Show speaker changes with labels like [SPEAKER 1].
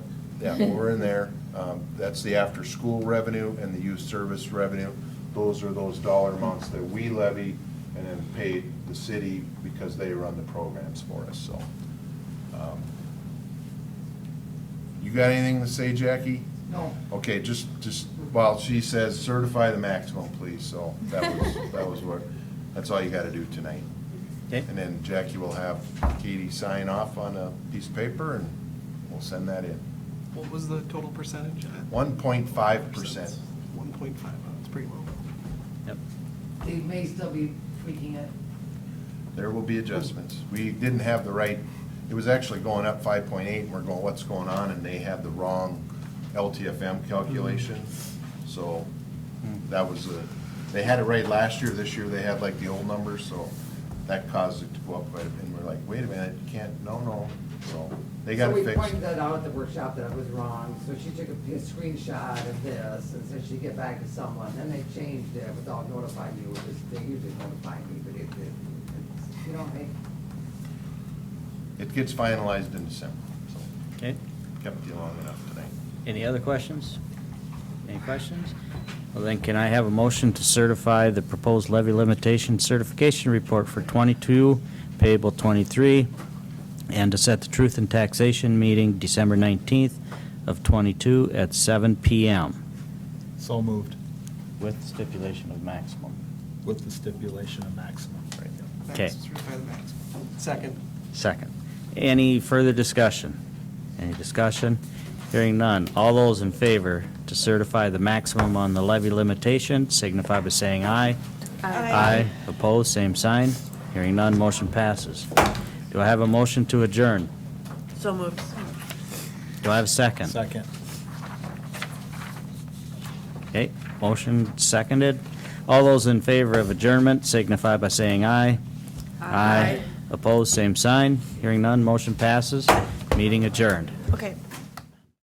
[SPEAKER 1] Yeah, well, we're in there. Um, That's the after-school revenue and the youth service revenue. Those are those dollar amounts that we levy and then pay the city because they run the programs for us, so. um, You got anything to say, Jackie?
[SPEAKER 2] No.
[SPEAKER 1] Okay, just, just, well, she says certify the maximum, please, so that was, that was what, that's all you gotta do tonight.
[SPEAKER 3] Okay.
[SPEAKER 1] And then Jackie will have Katie sign off on a piece of paper and we'll send that in.
[SPEAKER 2] What was the total percentage?
[SPEAKER 1] One point five percent.
[SPEAKER 2] One point five, that's pretty low.
[SPEAKER 3] Yep.
[SPEAKER 4] They may still be tweaking it.
[SPEAKER 1] There will be adjustments. We didn't have the right, it was actually going up five point eight, and we're going, what's going on? And they had the wrong LTFM calculation, so that was a, they had it right last year, this year they had like the old numbers, so that caused it to go up quite a bit. And we're like, wait a minute, you can't, no, no, so they got it
[SPEAKER 4] So we
[SPEAKER 1] fixed.
[SPEAKER 4] pointed that out at the workshop that it was wrong, so she took a p- screenshot of this and said she'd get back to someone, then they changed it without notifying you, which is, they usually notify me, but it, it, it's- you don't make,
[SPEAKER 1] It gets finalized in December, so
[SPEAKER 3] Okay.
[SPEAKER 1] kept you long enough tonight.
[SPEAKER 3] Any other questions? Any questions? Well, then can I have a motion to certify the proposed levy limitation certification report for twenty-two payable twenty-three and to set the truth and taxation meeting December nineteenth of twenty-two at seven PM
[SPEAKER 5] So moved,
[SPEAKER 3] with stipulation of maximum.
[SPEAKER 5] with the stipulation of maximum.
[SPEAKER 3] Okay.
[SPEAKER 2] Max, Certified max. Second.
[SPEAKER 3] Second. Any further discussion? Any discussion? Hearing none. All those in favor to certify the maximum on the levy limitation signify by saying aye. Aye. Opposed, same sign. Hearing none, motion passes. Do I have a motion to adjourn?
[SPEAKER 6] So moved.
[SPEAKER 3] Do I have a second?
[SPEAKER 5] Second.
[SPEAKER 3] Okay, motion seconded. All those in favor of adjournment signify by saying aye. Aye. Opposed, same sign. Hearing none, motion passes. Meeting adjourned.
[SPEAKER 6] Okay.